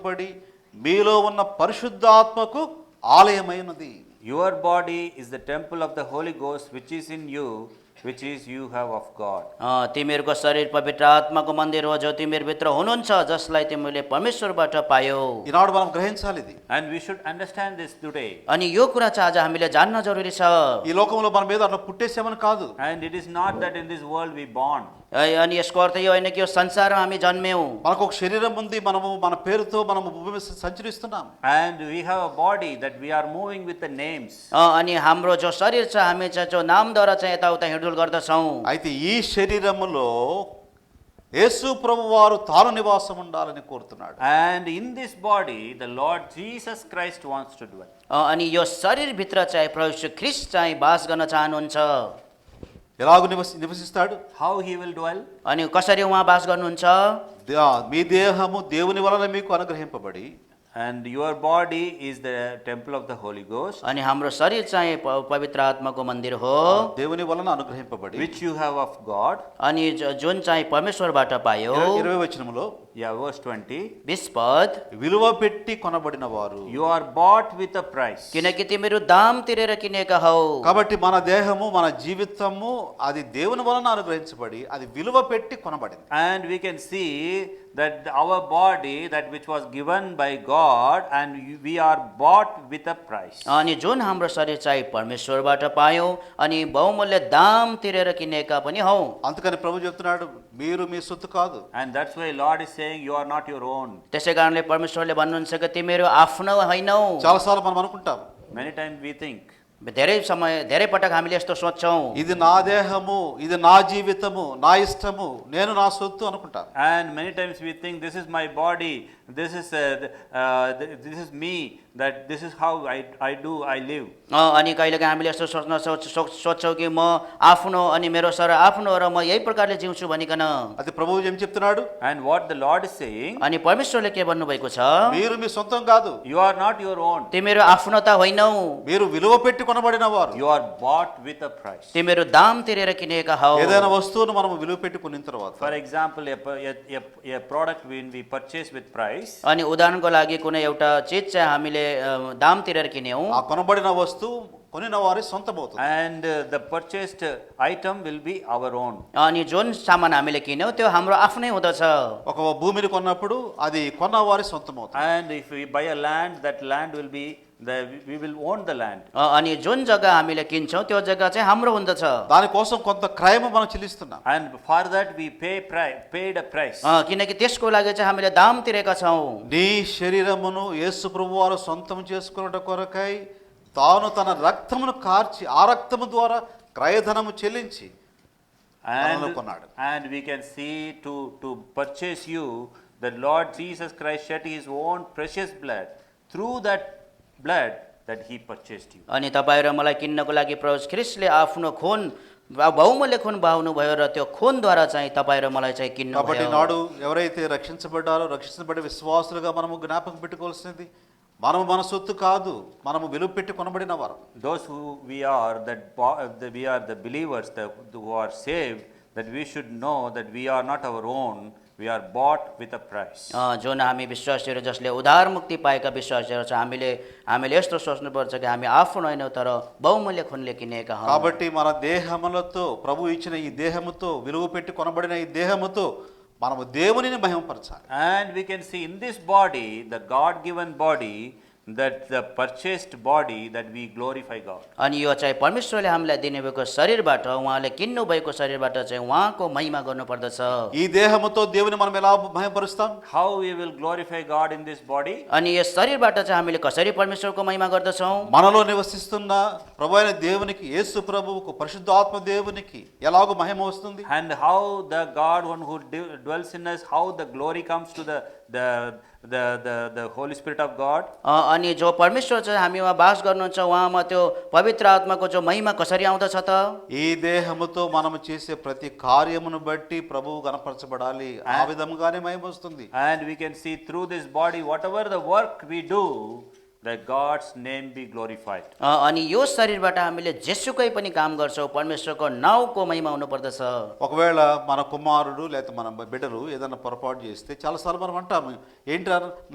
పడి మీలో ఉన్న పరిశుద్ధాత్మకు ఆలయమైనది Your body is the temple of the Holy Ghost which is in you, which is you have of God. अ, तिमीहरूको शरीर पवित्र आत्माको मन्दिर हो जो तिमीहरूभित्र हुनुहुन्छ जसलाई तिमीले परमेश्वरबाट पायौ ఈనాడు మనం గ్రహించాలి ఇది And we should understand this today. अनि यो कुरा चाहिँ आज हामीले जान्न जरुरी छ ఈ లోకంలో మన మీద అట్లా పుట్టేసామని కాదు And it is not that in this world we born. है, अनि यसको अर्थ यो होइन कि यो संसारमा हामी जन्म्यौँ మనకు ఒక శరీరం ఉంది మనము మన పేరుతో మనము భూమి మీద సంచరిస్తున్నాం And we have a body that we are moving with the names. अ, अनि हाम्रो जो शरीर छ हामी चाहिँ जो नामद्वारा चाहिँ यताउता हिँडुल गर्दछौँ అయితే ఈ శరీరములో యేసు ప్రభు వారు తాను నివాసం ఉండాలని కోరుతున్నాడు And in this body, the Lord Jesus Christ wants to dwell. अ, अनि यो शरीरभित्र चाहिँ प्रभु यीशु ख्रिस्ट चाहिँ बास गर्न चाहनुहुन्छ ఎలాగ నివసి నివసిస్తాడు How he will dwell? अनि कसरी उहाँ बास गर्नुहुन्छ దే- మీ దేహము దేవుని వలన మీకు అనుగ్రహింపబడి And your body is the temple of the Holy Ghost, अनि हाम्रो शरीर चाहिँ प- पवित्र आत्माको मन्दिर हो దేవుని వలన అనుగ్రహింపబడి which you have of God. अनि ज- जुन चाहिँ परमेश्वरबाट पायो ఇరవై- ఇరవై వచనములో Yeah, verse 20. बिस पद విలువ పెట్టి కొనబడిన వారు You are bought with a price. किनकि तिमीहरू दाम तिरेर किनेका हौ కాబట్టి మన దేహము మన జీవితము అది దేవుని వలన అనుగ్రహించబడి అది విలువ పెట్టి కొనబడింది And we can see that our body, that which was given by God, and we are bought with a price. अनि जुन हाम्रो शरीर चाहिँ परमेश्वरबाट पायौँ अनि बहुमूल्य दाम तिरेर किनेका पनि हौ అందుకని ప్రభు చెప్తున్నాడు మీరు మీ సొత్తు కాదు And that's why Lord is saying, you are not your own. त्यसै कारणले परमेश्वरले भन्नुहुन्छ कि तिमीहरू आफ्नो होइनौ చాలాసార్లు మనం అనుకుంటాం Many times we think, धेरै समय धेरै पटक हामीले यस्तो सोध्छौँ ఇది నా దేహము ఇది నా జీవితము నా ఇష్టము నేను నా సొత్తు అనుకుంటాను and many times we think, this is my body, this is, uh, th- uh, th- this is me, that this is how I, I do, I live. अँ, अनि कहिलेकाहीँ हामीले यस्तो सोच्न सोच सोच- सोच्छौँ कि म आफ्नो अनि मेरो सर आफ्नो र म यही प्रकारले जिउँछु भनिकन అది ప్రభువు ఏం చెప్తున్నాడు And what the Lord is saying, अनि परमेश्वरले के भन्नुभएको छ మీరు మీ సొంతం కాదు you are not your own. तिमीहरू आफ्नो त होइनौ మీరు విలువ పెట్టి కొనబడిన వారు You are bought with a price. तिमीहरू दाम तिरेर किनेका हौ ఏదైనా వస్తువును మనం విలువ పెట్టి కొనిన తర్వాత For example, a, a, a, a product when we purchase with price, अनि उदाहरणको लागि कुनै एउटा चिज चाहिँ हामीले अ, दाम तिरेर किन्यौँ ఆ కొనబడిన వస్తువు కొనిన వారి సొంతమవుతుంది And uh, the purchased uh, item will be our own. अनि जुन सामान हामीले किन्यौँ त्यो हाम्रो आफ्नै हुँदछ ఒక భూమిని కొన్నప్పుడు అది కొన్న వారి సొంతమవుతుంది And if we buy a land, that land will be, the, we will own the land. अ, अनि जुन जग्गा हामीले किन्छौँ त्यो जग्गा चाहिँ हाम्रो हुँदछ अ, దానికోసం కొంత క్రయము మనం చెల్లిస్తున్నాం And for that, we pay pri- paid a price. किनकि त्यसको लागि चाहिँ हामीले दाम तिरेका छौँ నీ శరీరమును యేసు ప్రభు వారు సొంతం చేసుకున్నట కొరకై తాను తన రక్తమును కార్చి ఆ రక్తము ద్వారా క్రయధనము చెల్లించి మనలో And, కొన్నాడు. and we can see to, to purchase you, the Lord Jesus Christ shed his own precious blood. Through that blood, that he purchased you. अनि तपाईँ र मलाई किन्नको लागि प्रभु ख्रिस्टले आफ्नो खुन वा- बहुमूल्य खुन बहाउनुभयो र त्यो खुनद्वारा चाहिँ तपाईँ र मलाई चाहिँ किन्नु కాబట్టి నాడు ఎవరైతే రక్షించబడ్డారో రక్షించబడే విశ్వాసులుగా మనము జ్ఞాపకం పెట్టుకోవాల్సింది మనము మన సొత్తు కాదు మనము విలువ పెట్టి కొనబడిన వారు Those who we are, that bo- uh, the- we are the believers the- who are saved, that we should know that we are not our own, we are bought with a price. अ, जुन हामी विश्वासीहरू जसले उधार मुक्ति पाएका विश्वासीहरू छ हामीले हामीले यस्तो सोच्नुपर्छ कि हामी आफ्नो होइनौँ तर बहुमूल्य खुनले किनेका हौँ కాబట్టి మన దేహములతో ప్రభు ఇచ్చిన ఈ దేహముతో విలువ పెట్టి కొనబడిన ఈ దేహముతో మనము దేవునిని మహిమపరచాలి And we can see in this body, the God given body, that the purchased body, that we glorify God. अनि यो चाहिँ परमेश्वरले हामीलाई दिनुभएको शरीरबाट उहाँले किन्नु भएको शरीरबाट चाहिँ उहाँको महिमा गर्नुपर्दछ ఈ దేహముతో దేవుని మనం ఎలా మహిమపరుస్తాం How we will glorify God in this body? अनि यस शरीरबाट चाहिँ हामीले कसरी परमेश्वरको महिमा गर्दछौँ మనలో నివసిస్తున్న ప్రభు అయిన దేవునికి యేసు ప్రభువుకు పరిశుద్ధాత్మ దేవునికి ఎలాగో మహిమ వస్తుంది And how the God, one who d- dwells in us, how the glory comes to the, the, the, the, the Holy Spirit of God? अ, अनि जो परमेश्वर चाहिँ हामीमा बास गर्नुहुन्छ उहाँमा त्यो पवित्र आत्माको जो महिमा कसरी आउँदछ त ఈ దేహముతో మనము చేసే ప్రతి కార్యమును బట్టి ప్రభువు కనపరచబడాలి ఆ విధముగానే మహిమ వస్తుంది And we can see through this body, whatever the work we do, that God's name be glorified. अ, अनि यो शरीरबाट हामीले जेसुकै पनि काम गर्छौँ परमेश्वरको नाउँको महिमा हुनुपर्दछ ఒకవేళ మన కుమారుడు లేకపోతే మన బిడ్డలు ఏదైనా పొరపాటు చేస్తే చాలాసార్లు మనం అంటాము ఏంటి రా